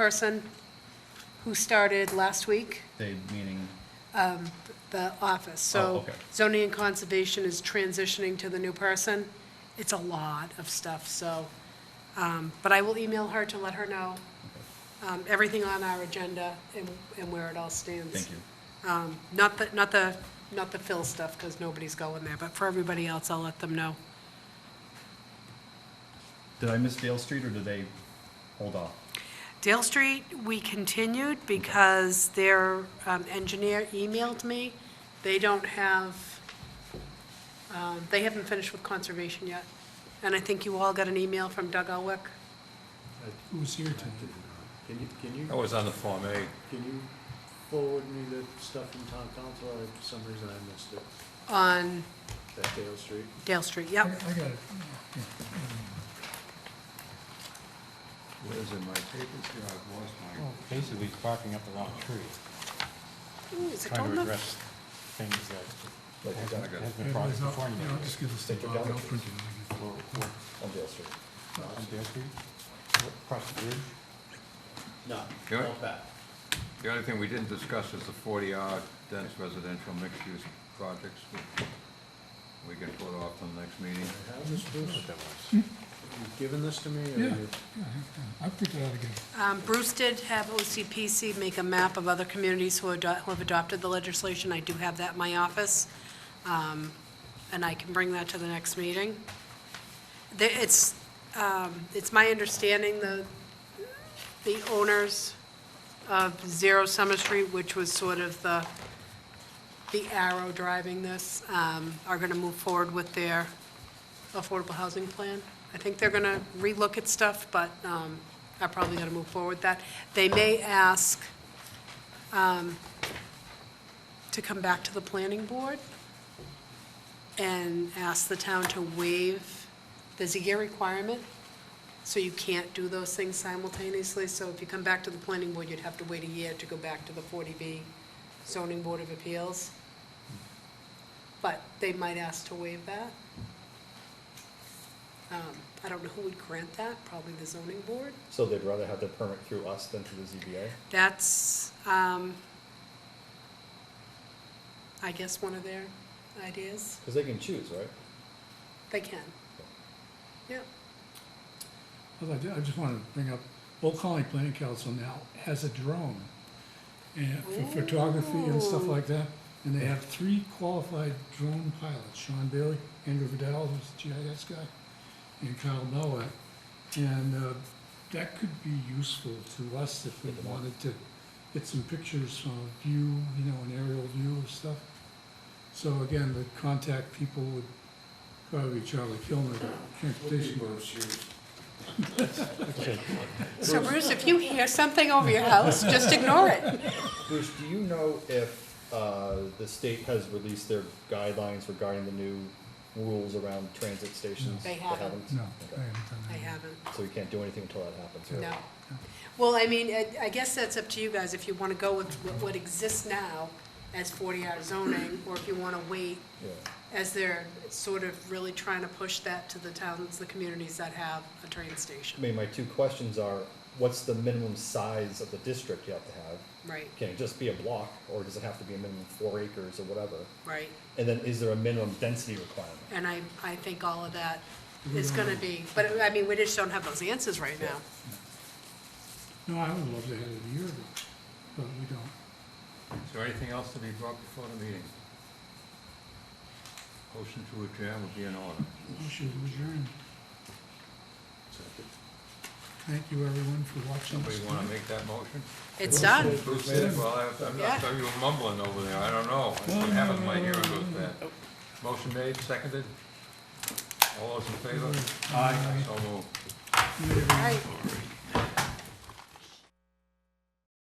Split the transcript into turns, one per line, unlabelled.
person who started last week,
They, meaning,
the office.
Oh,
So
okay.
zoning and conservation is transitioning to the new person. It's a lot of stuff, so, um, but I will email her to let her know um, everything on our agenda and, and where it all stands.
thank you.
Not the, not the, not the Phil stuff, because nobody's going there, but for everybody else, I'll let them know.
Did I miss Dale Street or did they hold off?
Dale Street, we continued because their um, engineer emailed me. They don't have, um, they haven't finished with conservation yet. And I think you all got an email from Doug Elwick.
Who was here tonight?
Uh, Can you, can you,
I was on the Form A.
can you forward me the stuff from town council? I- For some reason I missed it,
On
that Dale Street.
Dale Street,
I I
yep.
got it.
What is in my papers here? I've lost my.
Oh.
Basically barking up the wrong tree,
Ooh, is it
"Oh,
trying to
Dartmouth?
address things that hasn't has
Yeah,
been
but
brought
it's not-
before me.
you know, just give this to Bob, I'll print it. and
Well, what-
On Dale Street.
On Dale Street, What, across the bridge.
No,
Yeah.
all back.
The only thing we didn't discuss is the 40R dense residential mixed-use projects. We can put off till the next meeting.
I have this, Bruce?
That was.
You've given this to me, or
I got it. Yeah,
you-
yeah, I- I- I'll print it out again.
Um, Bruce did have OCPC make a map of other communities who ado- who have adopted the legislation. I do have that in my office, um, and I can bring that to the next meeting. There- It's, um, it's my understanding the, the owners of Zero Summer Street, which was sort of the, the arrow driving this, um, are going to move forward with their affordable housing plan. I think they're going to relook at stuff, but um, are probably going to move forward with that. They may ask um, to come back to the planning board and ask the town to waive the year requirement, so you can't do those things simultaneously. So if you come back to the planning board, you'd have to wait a year to go back to the 40B zoning board of appeals. But they might ask to waive that. Um, I don't know who would grant that, probably the zoning board.
So they'd rather have their permit through us than through the ZBA?
That's, um, I guess, one of their ideas.
Because they can choose, right?
They can. Yep.
Although I did- I just want to bring up, Old Colony Planning Council now has a drone and for photography and stuff
Ooh.
like that. And they have three qualified drone pilots, Sean Bailey, Andrew Vidal, who's the GIS guy, and Kyle Nowak. And uh, that could be useful to us if we wanted to get some pictures from a view, you know, an aerial view of stuff. So again, the contact people would probably be Charlie Kilmer, the Transportation Board.
So Bruce, if you hear something over your house, just ignore it.
Bruce, do you know if uh, the state has released their guidelines regarding the new rules around transit stations?
They haven't.
No, I
Okay.
haven't done that.
I
yet.
haven't,
So we can't do anything until that happens, right?
no. Well, I mean, I- I guess that's up to you guys, if you want to go with what- what exists now as 40-hour zoning, or if you want to wait
Yeah.
as they're sort of really trying to push that to the towns, the communities that have a train
I
station.
mean, my two questions are, what's the minimum size of the district you have to have?
Right,
Can it just be a block, or does it have to be a minimum of four acres or whatever?
right.
And then is there a minimum density requirement?
And I, I think all of that is gonna be, but I mean, we just don't have those answers right now.
No, I would love to have it a year ago, but we don't.
Is there anything else to be brought before the meeting? Motion to adjourn would be in order.
Motion to adjourn. Thank you, everyone, for watching.
Somebody
this
want
tonight.
to make that motion?
It's done.
Bruce did, well, I- I'm not, you were mumbling over there, I don't know. What happens when my hearing goes bad? Motion made, seconded? All those in favor? Aye. So moved.
Right.